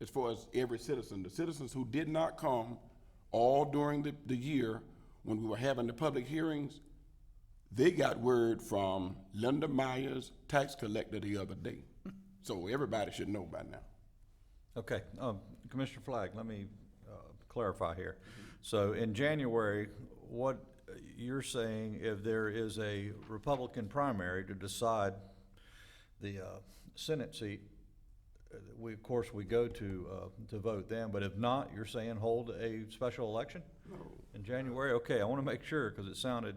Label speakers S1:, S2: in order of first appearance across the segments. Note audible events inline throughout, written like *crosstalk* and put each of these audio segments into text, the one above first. S1: as far as every citizen. The citizens who did not come all during the, the year when we were having the public hearings, they got word from Linda Myers, tax collector, the other day. So everybody should know by now.
S2: Okay, um, Commissioner Flag, let me, uh, clarify here. So in January, what you're saying, if there is a Republican primary to decide the, uh, Senate seat, uh, we, of course, we go to, uh, to vote then, but if not, you're saying hold a special election? In January, okay, I wanna make sure, cause it sounded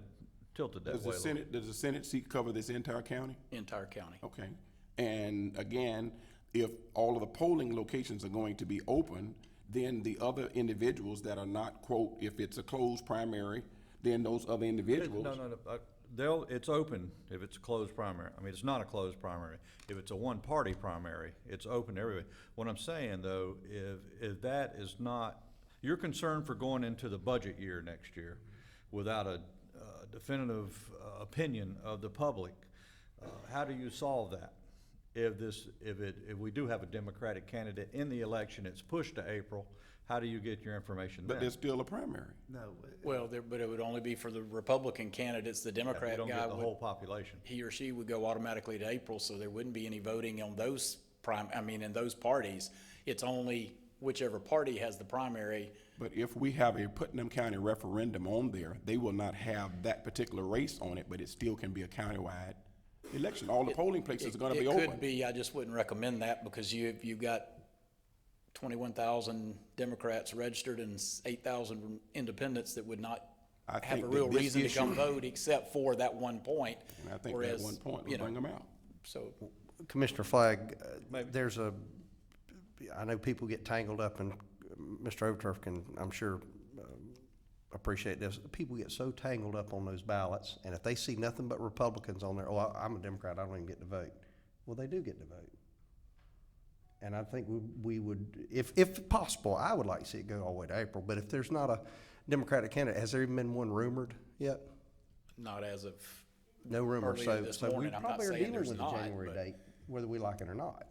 S2: tilted that way.
S1: Does
S2: a
S1: the
S2: little.
S1: Senate, does the Senate seat cover this entire county?
S3: entire county.
S1: Okay. And again, if all of the polling locations are going to be open, then the other individuals that are not, quote, if it's a closed primary, then those other individuals.
S2: No, no, no, uh, they'll, it's open if it's a closed primary. I mean, it's not a closed primary. If it's a one-party primary, it's open to everybody. What I'm saying, though, if, if that is not, you're concerned for going into the budget year next year without a uh, definitive uh, opinion of the public, uh, how do you solve that? If this, if it, if we do have a Democratic candidate in the election, it's pushed to April, how do you get your information then?
S1: But there's still a primary.
S4: No,
S3: Well, there, but it would only be for the Republican candidates. The
S2: You
S3: Democrat
S2: don't
S3: guy
S2: get the
S3: would,
S2: whole population.
S3: he or she would go automatically to April, so there wouldn't be any voting on those prime, I mean, in those parties. It's only whichever party has the primary.
S1: But if we have a Putnam County referendum on there, they will not have that particular race on it, but it still can be a countywide election. All the polling places are gonna be
S3: It could
S1: open.
S3: be, I just wouldn't recommend that because you, you've got twenty-one thousand Democrats registered and eight thousand independents that would not
S1: I
S3: have
S1: think
S3: a
S1: that
S3: real
S1: this
S3: reason to come
S1: issue-
S3: vote except for that one point.
S1: And I think that
S3: Whereas,
S1: one point
S3: you
S1: will
S3: know,
S1: bring them out.
S3: So,
S4: Commissioner Flagg, uh, there's a, I know people get tangled up and Mr. Overturf can, I'm sure, um, appreciate this. People get so tangled up on those ballots and if they see nothing but Republicans on there, oh, I- I'm a Democrat, I don't even get to vote. Well, they do get to vote. And I think we, we would, if, if possible, I would like to see it go all the way to April, but if there's not a Democratic candidate, has there even been one rumored yet?
S3: not as of,
S4: No rumor,
S3: Earlier
S4: so,
S3: this
S4: so we
S3: morning, I'm not
S4: probably are
S3: saying
S4: dealing
S3: there's
S4: with a
S3: not,
S4: January
S3: but-
S4: date, whether we like it or not.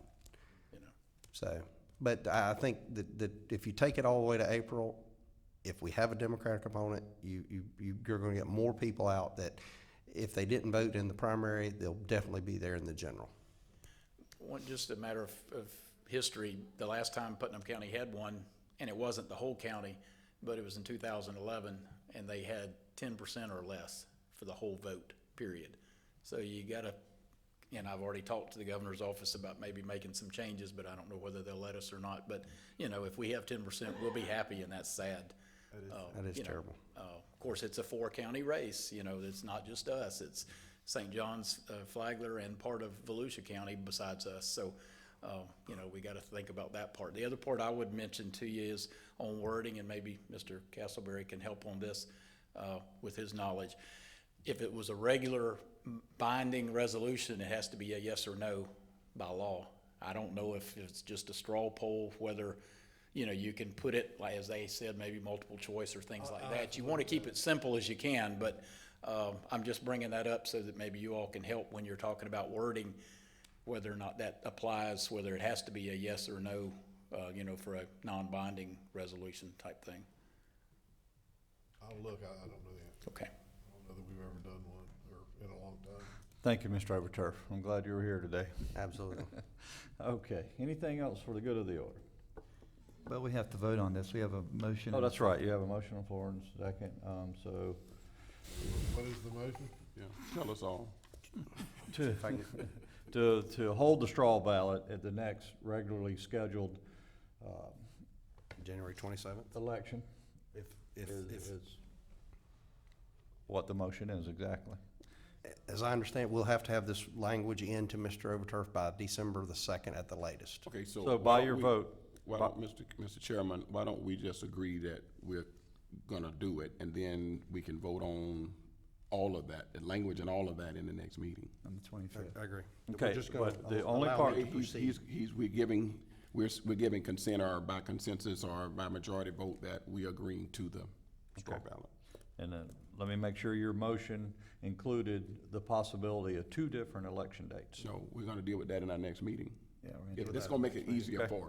S3: you know.
S4: So, but I I think that, that if you take it all the way to April, if we have a Democratic opponent, you, you, you- you're gonna get more people out that if they didn't vote in the primary, they'll definitely be there in the general.
S3: One, just a matter of, of history, the last time Putnam County had one, and it wasn't the whole county, but it was in two thousand eleven, and they had ten percent or less for the whole vote, period. So you gotta, and I've already talked to the governor's office about maybe making some changes, but I don't know whether they'll let us or not, but, you know, if we have ten percent, we'll be happy, and that's sad. Uh,
S4: That is
S3: you know,
S4: terrible.
S3: uh, Of course, it's a four-county race, you know, it's not just us, it's St. John's, uh, Flagler, and part of Volusia County besides us, so, uh, you know, we gotta think about that part. The other part I would mention to you is on wording, and maybe Mr. Castleberry can help on this uh, with his knowledge. If it was a regular binding resolution, it has to be a yes or no by law. I don't know if it's just a straw poll, whether, you know, you can put it, like, as they said, maybe multiple choice or things like that. You want to keep it simple as you can, but um, I'm just bringing that up so that maybe you all can help when you're talking about wording, whether or not that applies, whether it has to be a yes or no, uh, you know, for a non-binding resolution type thing.
S5: I'll look, I, I don't know that.
S3: Okay.
S5: I don't know that we've ever done one, or in a long time.
S2: Thank you, Mr. Overturf. I'm glad you were here today.
S3: *laughs*
S4: Absolutely.
S2: Okay, anything else for the good of the order?
S6: Well, we have to vote on this. We have a motion.
S2: Oh, that's right, you have a motion on the floor and a second, um, so,
S5: What is the motion?
S1: Yeah, tell us all.
S2: to, *laughs* to, to hold the straw ballot at the next regularly scheduled, uh,
S4: January twenty-seventh?
S2: election
S4: If, if,
S2: is,
S4: if,
S2: is what the motion is exactly.
S4: as I understand, we'll have to have this language in to Mr. Overturf by December the second at the latest.
S1: Okay, so. why
S2: So by
S1: don't
S2: your
S1: we-
S2: vote,
S1: Why don't, Mr. Mr. Chairman, why don't we just agree that we're gonna do it, and then we can vote on all of that, the language and all of that in the next meeting?
S6: On the twenty-fifth.
S4: I agree.
S2: okay,
S4: just gonna
S2: but the
S4: allow
S2: only
S4: it.
S2: part,
S4: to
S1: He's,
S4: proceed.
S1: he's, he's, we're giving, we're, s- we're giving consent or by consensus or by majority vote that we agreeing to the straw ballot.
S2: and then, let me make sure your motion included the possibility of two different election dates.
S1: So we're gonna deal with that in our next meeting.
S6: Yeah, we're gonna
S1: If- That's gonna make it easier for us.